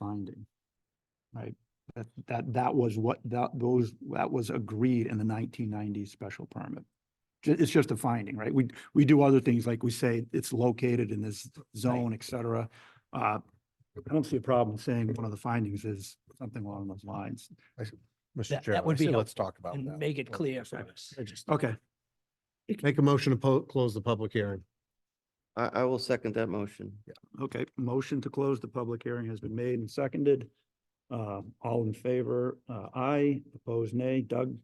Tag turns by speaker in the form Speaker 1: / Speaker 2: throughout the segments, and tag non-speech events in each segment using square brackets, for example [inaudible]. Speaker 1: finding. Right, that, that, that was what, that, those, that was agreed in the nineteen ninety special permit. Ju- It's just a finding, right? We, we do other things, like we say, it's located in this zone, et cetera. Uh, I don't see a problem saying one of the findings is something along those lines.
Speaker 2: That-
Speaker 3: Mr.
Speaker 2: that
Speaker 3: Chairman,
Speaker 2: would
Speaker 3: I say
Speaker 2: be
Speaker 3: let's talk about
Speaker 2: and
Speaker 3: that.
Speaker 2: make it
Speaker 3: Well,
Speaker 2: clear for us.
Speaker 1: Okay,
Speaker 3: Make a motion to po- close the public hearing.
Speaker 4: I, I will second that motion.
Speaker 1: okay, motion to close the public hearing has been made and seconded. Uh, all in favor, uh, aye, opposed nay, Doug?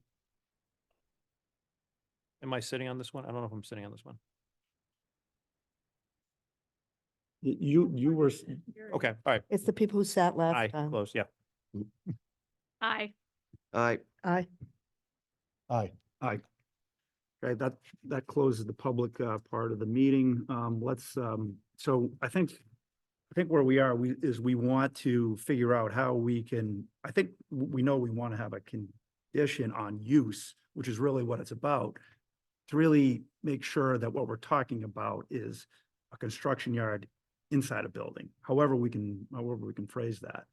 Speaker 5: Am I sitting on this one? I don't know if I'm sitting on this one.
Speaker 1: Y- You, you were, s-
Speaker 5: Okay, all right.
Speaker 6: It's the people who sat
Speaker 5: Aye,
Speaker 6: last time.
Speaker 5: close, yeah.
Speaker 7: Aye.
Speaker 4: I,
Speaker 6: Aye.
Speaker 3: Aye.
Speaker 1: okay, that, that closes the public, uh, part of the meeting. Um, let's, um, so I think, I think where we are, we, is we want to figure out how we can, I think w- we know we want to have a condition on use, which is really what it's about. To really make sure that what we're talking about is a construction yard inside a building, however we can, however we can phrase that.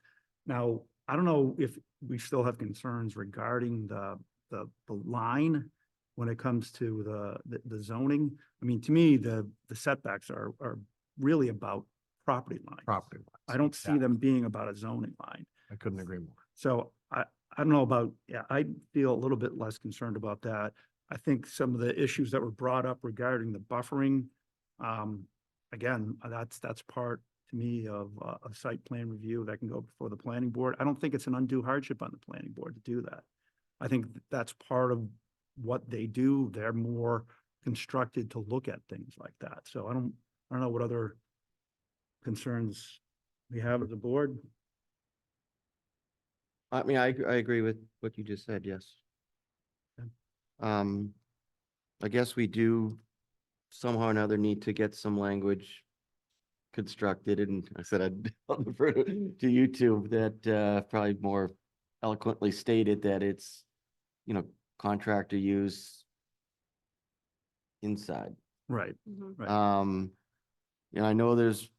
Speaker 1: Now, I don't know if we still have concerns regarding the, the, the line when it comes to the- the, the zoning. I mean, to me, the, the setbacks are, are really about property lines.
Speaker 3: Property.
Speaker 1: I don't see them being about a zoning line.
Speaker 3: I couldn't agree more.
Speaker 1: So I, I don't know about, yeah, I feel a little bit less concerned about that. I think some of the issues that were brought up regarding the buffering, um, again, that's, that's part to me of uh, a site plan review that can go before the planning board. I don't think it's an undue hardship on the planning board to do that. I think that's part of what they do. They're more constructed to look at things like that. So I don't, I don't know what other concerns we have as a board.
Speaker 4: I mean, I, I agree with what you just said, yes.
Speaker 1: Okay.
Speaker 4: Um, I guess we do somehow or another need to get some language constructed, and I said I'd [laughs] I'll defer to to you two that, uh, probably more eloquently stated that it's, you know, contractor use inside.
Speaker 1: Right.
Speaker 6: Mm-hmm.
Speaker 1: Right.
Speaker 4: Um, you know, I know there's,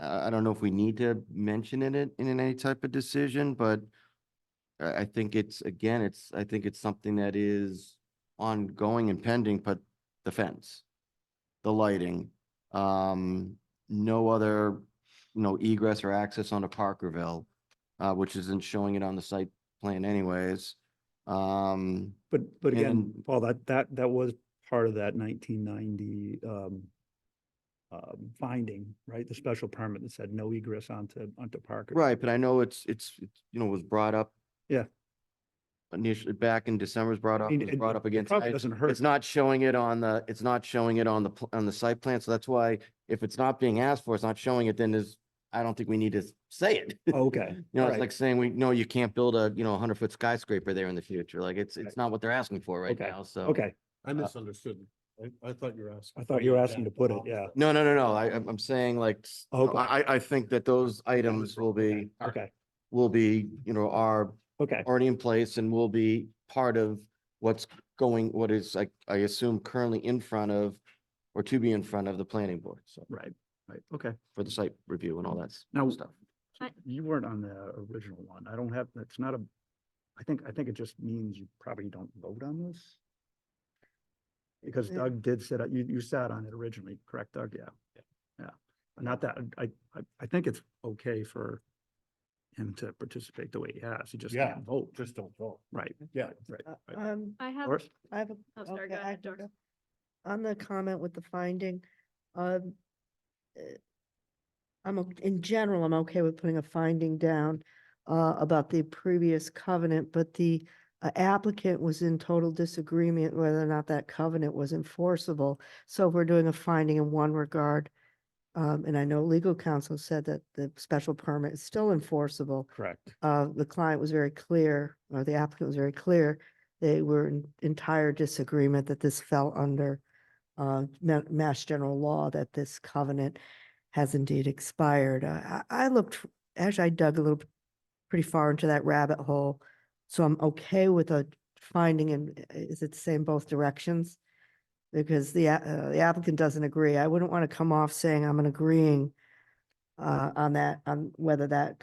Speaker 4: I, I don't know if we need to mention in it in any type of decision, but I, I think it's, again, it's, I think it's something that is ongoing and pending, but the fence, the lighting, um, no other, you know, egress or access onto Parkerville, uh, which isn't showing it on the site plan anyways. Um,
Speaker 1: But, but again,
Speaker 4: And-
Speaker 1: Paul, that, that, that was part of that nineteen ninety, um, um, finding, right? The special permit that said no egress onto, onto Parker.
Speaker 4: Right, but I know it's, it's, it's, you know, was brought up.
Speaker 1: Yeah.
Speaker 4: Initially, back in December, was brought
Speaker 1: I
Speaker 4: up,
Speaker 1: mean,
Speaker 4: was
Speaker 1: it-
Speaker 4: brought up
Speaker 1: it
Speaker 4: again.
Speaker 1: Probably
Speaker 4: tonight.
Speaker 1: doesn't hurt.
Speaker 4: It's not showing it on the, it's not showing it on the, pl- on the site plan, so that's why if it's not being asked for, it's not showing it, then there's, I don't think we need to s- say it. [laughs]
Speaker 1: Okay.
Speaker 4: You know,
Speaker 1: Right.
Speaker 4: it's like saying, we, no, you can't build a, you know, a hundred foot skyscraper there in the future, like, it's,
Speaker 1: Right.
Speaker 4: it's not what they're asking for right
Speaker 1: Okay,
Speaker 4: now, so.
Speaker 1: Okay,
Speaker 5: Uh,
Speaker 3: I misunderstood. I, I thought you were asking.
Speaker 1: I thought you were asking to put it, yeah.
Speaker 4: No, no, no, no, I, I'm I'm saying like, s- no,
Speaker 1: Okay.
Speaker 4: I, I- I think that those items will be,
Speaker 1: Okay,
Speaker 4: will be, you know, are
Speaker 1: okay,
Speaker 4: already in place and will be part of what's going, what is, I, I assume currently in front of or to be in front of the planning board, so
Speaker 1: right, right, okay.
Speaker 4: for the site review and all that s-
Speaker 1: Now-
Speaker 4: stuff.
Speaker 7: I-
Speaker 1: You weren't on the original one. I don't have, it's not a, I think, I think it just means you probably don't vote on this. Because
Speaker 6: Yeah.
Speaker 1: Doug did sit, you, you sat on it originally, correct, Doug? Yeah. Yeah. Not that, I, I, I think it's okay for him to participate the way he has. He just
Speaker 3: Yeah.
Speaker 1: can't vote.
Speaker 3: Just don't vote.
Speaker 1: Right,
Speaker 3: Yeah.
Speaker 1: right, right.
Speaker 6: Um,
Speaker 7: I have,
Speaker 1: Or-
Speaker 6: I have a
Speaker 7: oh, sorry,
Speaker 6: Okay,
Speaker 7: go
Speaker 6: I
Speaker 7: ahead,
Speaker 6: can
Speaker 7: Doris.
Speaker 6: on the comment with the finding, um, uh, I'm, o- in general, I'm okay with putting a finding down, uh, about the previous covenant, but the uh, applicant was in total disagreement whether or not that covenant was enforceable. So if we're doing a finding in one regard, um, and I know legal counsel said that the special permit is still enforceable.
Speaker 1: correct.
Speaker 6: uh, the client was very clear, or the applicant was very clear, they were in entire disagreement that this fell under uh, ma- mass general law, that this covenant has indeed expired. I, I I looked, f- actually, I dug a little p- pretty far into that rabbit hole. So I'm okay with a finding and is it the same both directions? Because the, a- uh, the applicant doesn't agree. I wouldn't want to come off saying I'm agreeing uh, uh, on that, on whether that